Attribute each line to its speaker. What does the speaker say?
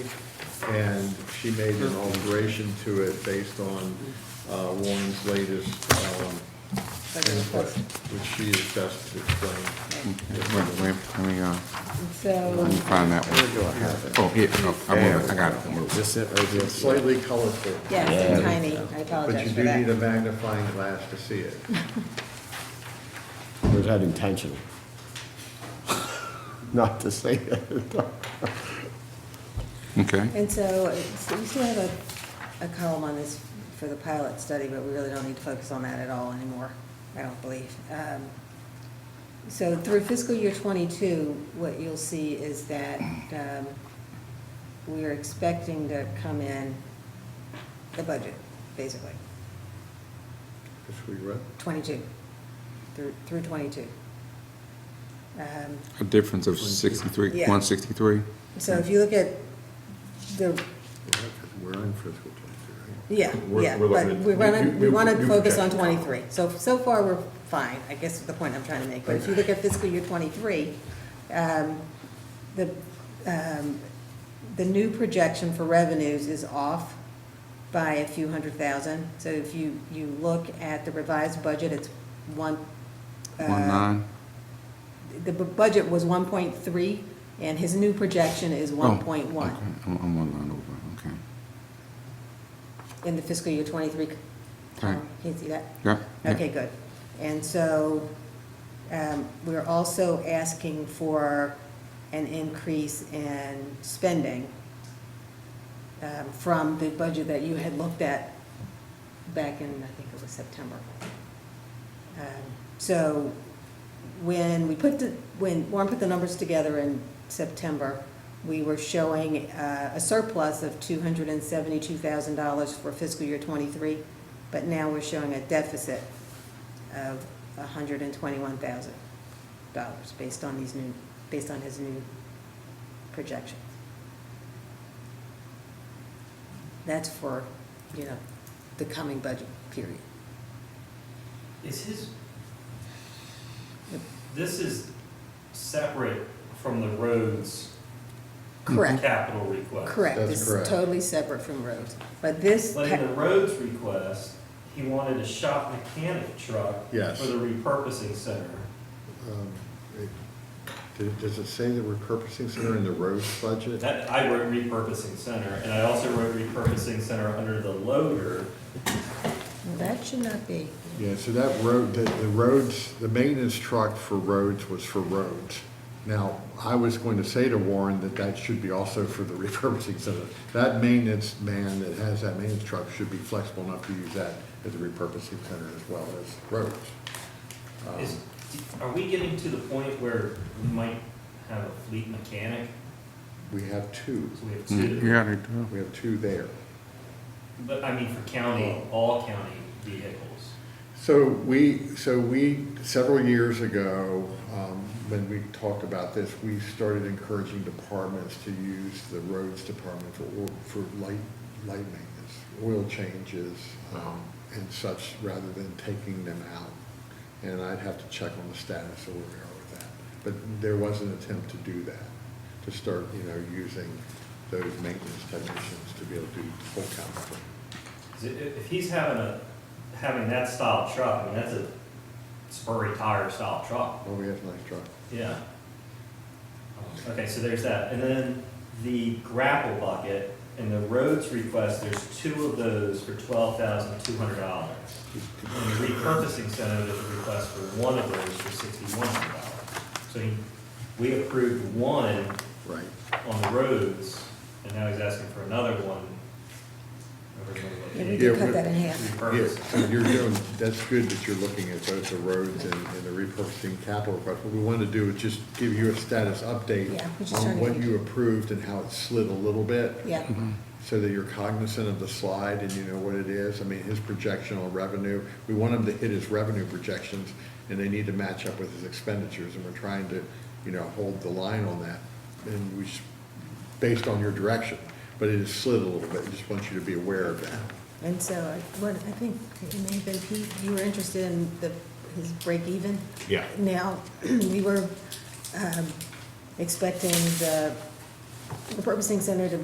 Speaker 1: and she made an alteration to it based on uh, Warren's latest um, input, which she is best to explain.
Speaker 2: Wait, wait, let me, uh,
Speaker 3: So,
Speaker 2: let me find that one.
Speaker 1: do I have it?
Speaker 2: Oh, here, oh, I moved it, I got it.
Speaker 4: This it right
Speaker 1: It's slightly colorful,
Speaker 3: yes, it's tiny, I
Speaker 1: but you
Speaker 3: apologize for
Speaker 1: do need a
Speaker 3: that.
Speaker 1: magnifying glass to see it.
Speaker 4: Was that intentional? Not to say that.
Speaker 2: Okay,
Speaker 3: And so, it's- we still have a, a column on this for the pilot study, but we really don't need to focus on that at all anymore, I don't believe. Um, So through fiscal year twenty-two, what you'll see is that, um, we are expecting to come in the budget, basically,
Speaker 1: Just reread.
Speaker 3: twenty-two, through, through twenty-two. Um,
Speaker 2: a difference of sixty-three,
Speaker 3: Yeah.
Speaker 2: one sixty-three?
Speaker 3: So if you look at the
Speaker 1: We're on fiscal twenty-three, right?
Speaker 3: Yeah,
Speaker 5: We're-
Speaker 3: yeah,
Speaker 5: we're
Speaker 3: but
Speaker 5: looking at-
Speaker 3: we want
Speaker 5: you-
Speaker 3: to,
Speaker 5: you-
Speaker 3: we want
Speaker 5: you
Speaker 3: to focus on
Speaker 5: project.
Speaker 3: 23. So, so far, we're fine, I guess is the point I'm trying to make. But if you look at fiscal year 23, um, the, um, the new projection for revenues is off by a few hundred thousand. So if you, you look at the revised budget, it's one. uh,
Speaker 2: One nine?
Speaker 3: The bu- budget was 1.3, and his new projection is
Speaker 2: Oh,
Speaker 3: 1.1
Speaker 2: okay, I'm, I'm one line over, okay.
Speaker 3: in the fiscal year 23.
Speaker 2: Okay.
Speaker 3: Can you see that?
Speaker 2: Yeah, yeah.
Speaker 3: Okay, good. And so um, we're also asking for an increase in spending um, from the budget that you had looked at back in, I think it was September. Um, So when we put the, when Warren put the numbers together in September, we were showing uh, a surplus of two hundred and seventy-two thousand dollars for fiscal year twenty-three, but now we're showing a deficit of hundred and twenty-one thousand dollars based on these new, based on his new projections. That's for, you know, the coming budget period.
Speaker 6: Is his, this is separate from the roads
Speaker 3: Correct.
Speaker 6: capital request.
Speaker 3: Correct,
Speaker 1: That's
Speaker 3: this is
Speaker 1: correct.
Speaker 3: totally separate from roads, but this,
Speaker 6: But in the
Speaker 3: ca-
Speaker 6: roads request, he wanted a shop mechanic truck.
Speaker 1: Yes.
Speaker 6: For the repurposing center.
Speaker 1: Um, it- did- Does it say that we're purposing center in the roads budget?
Speaker 6: That, I wrote repurposing center, and I also wrote repurposing center under the loader.
Speaker 3: Well, that should not be,
Speaker 1: Yeah, so that road, the, the roads, the maintenance truck for roads was for roads. Now, I was going to say to Warren that that should be also for the repurposing center. That maintenance man that has that maintenance truck should be flexible enough to use that as a repurposing center as well as roads.
Speaker 2: Um.
Speaker 6: Is, are we getting to the point where we might have a fleet mechanic?
Speaker 1: We have two,
Speaker 6: So we have
Speaker 2: Mm,
Speaker 6: two.
Speaker 2: Yeah, they do.
Speaker 1: we have two there.
Speaker 6: But I mean, for county, all county vehicles.
Speaker 1: So we, so we, several years ago, um, when we talked about this, we started encouraging departments to use the roads department for, oil- for light, light maintenance, oil changes, um, and such, rather than taking them out. And I'd have to check on the status of where we are with that. But there was an attempt to do that, to start, you know, using those maintenance technicians to be able to do full count.
Speaker 6: 'Cause i- If if he's having a, having that style of truck, I mean, that's a spurry tire style truck,
Speaker 1: Oh, we have a nice truck.
Speaker 6: yeah. Okay, so there's that, and then the grapple bucket and the roads request, there's two of those for twelve thousand two hundred dollars. And the repurposing center, there's a request for one of those for sixty-one hundred dollars. So he, we approved one
Speaker 1: Right.
Speaker 6: on the roads, and now he's asking for another one. over in the-
Speaker 3: Yeah, we
Speaker 1: Yeah,
Speaker 3: could cut that in half.
Speaker 6: Repurpose.
Speaker 1: Yes, so you're doing, that's good that you're looking at both the roads and, and the repurposing capital request. What we want to do is just give you a status update
Speaker 3: Yeah, we're just trying
Speaker 1: on
Speaker 3: to
Speaker 1: what
Speaker 3: make-
Speaker 1: you approved and how it slid a little bit,
Speaker 3: yeah,
Speaker 1: so that you're cognizant of the slide and you know what it is. I mean, his projection on revenue, we want him to hit his revenue projections, and they need to match up with his expenditures, and we're trying to, you know, hold the line on that. And we, s- based on your direction, but it has slid a little bit, just want you to be aware of that.
Speaker 3: and so, I- what, I think, it may have been Pete, you were interested in the, his break even?
Speaker 4: Yeah.
Speaker 3: Now, we were um, expecting the repurposing center to